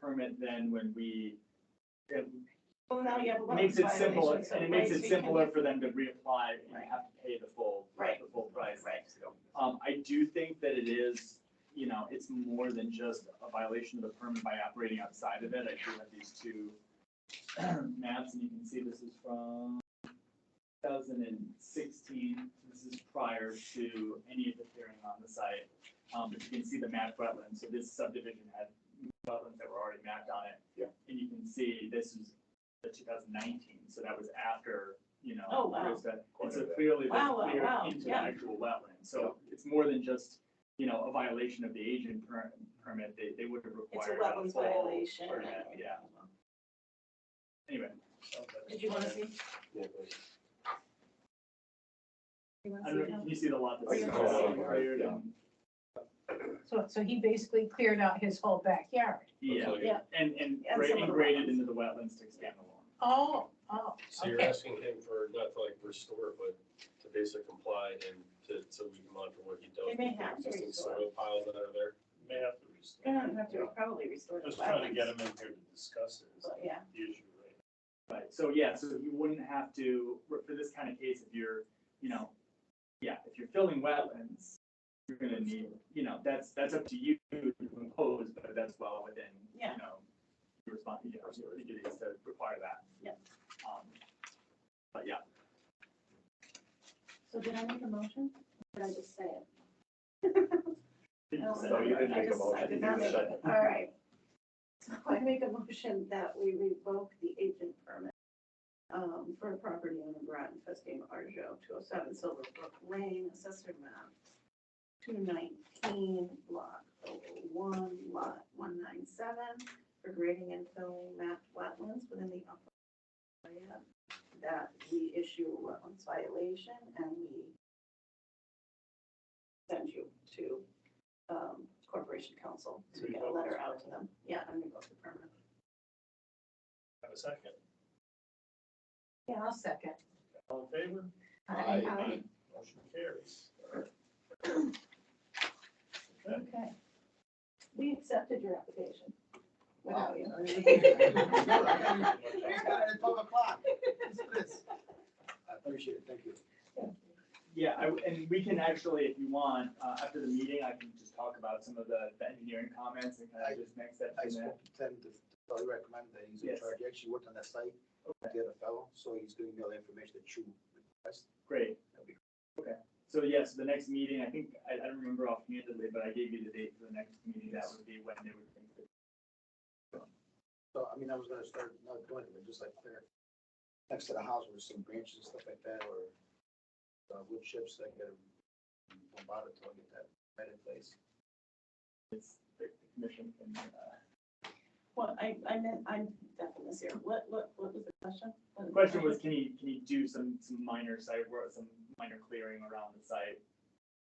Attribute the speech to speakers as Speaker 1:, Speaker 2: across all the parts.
Speaker 1: permit then when we, it
Speaker 2: Well, now you have a lot of
Speaker 1: makes it simpler,
Speaker 2: violations, so
Speaker 1: and it makes
Speaker 2: right,
Speaker 1: it
Speaker 2: so you can
Speaker 1: simpler
Speaker 2: get-
Speaker 1: for them to reapply and
Speaker 2: Right.
Speaker 1: have to pay the full,
Speaker 2: Right.
Speaker 1: the full price.
Speaker 2: Right.
Speaker 1: Um, I do think that it is, you know, it's more than just a violation of the permit by operating outside of it. I do have these two maps, and you can see this is from 2016. This is prior to any of the clearing on the site. Um, But you can see the mapped wetlands, so this subdivision had wetlands that were already mapped on it.
Speaker 3: Yeah.
Speaker 1: And you can see this is the 2019, so that was after, you know.
Speaker 2: Oh, wow.
Speaker 1: there's that-
Speaker 3: Quite
Speaker 1: And
Speaker 3: a
Speaker 1: so
Speaker 3: bit.
Speaker 1: clearly, there's
Speaker 2: Wow, wow,
Speaker 1: clear
Speaker 2: wow,
Speaker 1: into the
Speaker 2: yeah.
Speaker 1: actual wetland. So it's more than just, you know, a violation of the agent per- permit. They, they would have
Speaker 2: It's a
Speaker 1: required.
Speaker 2: wetlands
Speaker 1: full
Speaker 2: violation.
Speaker 1: permit, Yeah, anyway.
Speaker 2: Did you wanna see?
Speaker 3: Yeah, but-
Speaker 4: You wanna
Speaker 1: I
Speaker 4: see
Speaker 1: don't know,
Speaker 4: how-
Speaker 1: can you see the lot that's.
Speaker 2: Yeah.
Speaker 1: cleared
Speaker 3: Yeah.
Speaker 1: and-
Speaker 4: So, so he basically cleared out his whole backyard.
Speaker 1: Yeah,
Speaker 3: Looks like it.
Speaker 2: Yeah.
Speaker 1: and, and
Speaker 2: And
Speaker 1: gra-
Speaker 2: some of
Speaker 1: and
Speaker 2: the
Speaker 1: graded
Speaker 2: wetlands.
Speaker 1: into the wetlands to expand the lawn.
Speaker 4: Oh, oh,
Speaker 3: So you're
Speaker 4: okay.
Speaker 3: asking him for, not to like restore, but to basically comply and to, so we can monitor what he does.
Speaker 2: They may
Speaker 3: with the
Speaker 2: have to
Speaker 3: Existing
Speaker 2: restore.
Speaker 3: soil piles that are there.
Speaker 5: May have to
Speaker 2: You're
Speaker 5: restore.
Speaker 2: gonna have to probably restore the
Speaker 5: Just trying to get
Speaker 2: wetlands.
Speaker 5: them in here to discuss it is
Speaker 2: But, Yeah,
Speaker 5: the issue right
Speaker 1: Right, so yeah, so you wouldn't have to, for for this kind of case, if you're, you know, yeah, if you're filling wetlands, you're gonna need, you know, that's, that's up to you to impose, but that's well within, you
Speaker 2: Yeah.
Speaker 1: know, your respons you know, your duties to require that.
Speaker 2: Yeah.
Speaker 1: Um, But yeah,
Speaker 2: so did I make a motion? Or Did I just say it?
Speaker 3: No, you didn't
Speaker 2: I
Speaker 3: make a
Speaker 2: just- I
Speaker 3: motion, you
Speaker 2: did not
Speaker 3: just
Speaker 2: make
Speaker 3: said
Speaker 2: it. All right. So I make a motion that we revoke the agent permit um, for a property owner Brian Festing Arjo, two oh seven Silverbrook Lane, assessor map, two nineteen, block one, lot one nine seven, for grading and filling mapped wetlands within the upper area, that we issue a wetlands violation and we send you to um, Corporation Council to get a letter out to them. Yeah, and revoke the permit.
Speaker 5: Have a second.
Speaker 4: Yeah, I'll second.
Speaker 5: All in favor?
Speaker 3: Aye.
Speaker 2: Aye.
Speaker 5: Motion carries.
Speaker 4: Okay.
Speaker 2: We accepted your application. Without you.
Speaker 6: I appreciate it, thank you.
Speaker 1: Yeah, I, and we can actually, if you want, uh, after the meeting, I can just talk about some of the, the engineering comments and kind of just next steps
Speaker 6: I
Speaker 1: in that.
Speaker 6: spoke to Tim, to so he recommended that he's in
Speaker 1: Yes.
Speaker 6: charge, he actually worked on that site, with the other fellow, so he's giving me all the information that you request.
Speaker 1: Great.
Speaker 6: That'd be-
Speaker 1: So yes, the next meeting, I think, I, I don't remember offhandedly, but I gave you the date for the next meeting. That would be when they would think that
Speaker 6: So, I mean, I was gonna start, not doing it, but just like there, next to the house with some branches and stuff like that, or uh, wood chips, I gotta don't bother till I get that right in place.
Speaker 1: it's, the commission can, uh,
Speaker 2: Well, I, I meant, I'm definitely this year. What, what, what was the question?
Speaker 1: the question was, can he, can he do some, some minor site work, some minor clearing around the site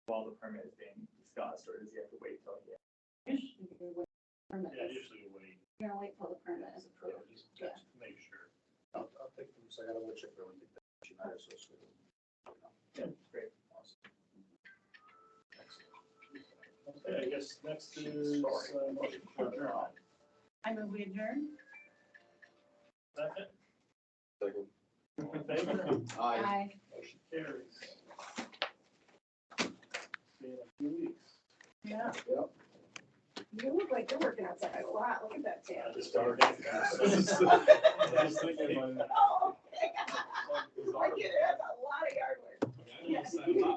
Speaker 1: while the permit is being discussed, or does he have to wait till he?
Speaker 2: Usually you wait for permits.
Speaker 5: Yeah, usually we wait,
Speaker 2: You're gonna wait till the permit is
Speaker 5: yeah,
Speaker 2: approved.
Speaker 5: just just to make sure.
Speaker 6: I'll, I'll take them, so I got a wood chip, I think that should not associate.
Speaker 1: Yeah, great.
Speaker 5: Okay, I guess next is. uh, motion to adjourn.
Speaker 2: I move we adjourn.
Speaker 5: Second,
Speaker 3: Second.
Speaker 5: all in favor?
Speaker 4: Aye.
Speaker 5: Motion carries. See you in a few weeks.
Speaker 4: Yeah. You look like you're working outside a lot. Look at that tan.
Speaker 5: I just started. I was thinking about it.
Speaker 2: Oh, I get it. That's a lot of yard work.
Speaker 3: Yeah, I don't know, it's not a lot.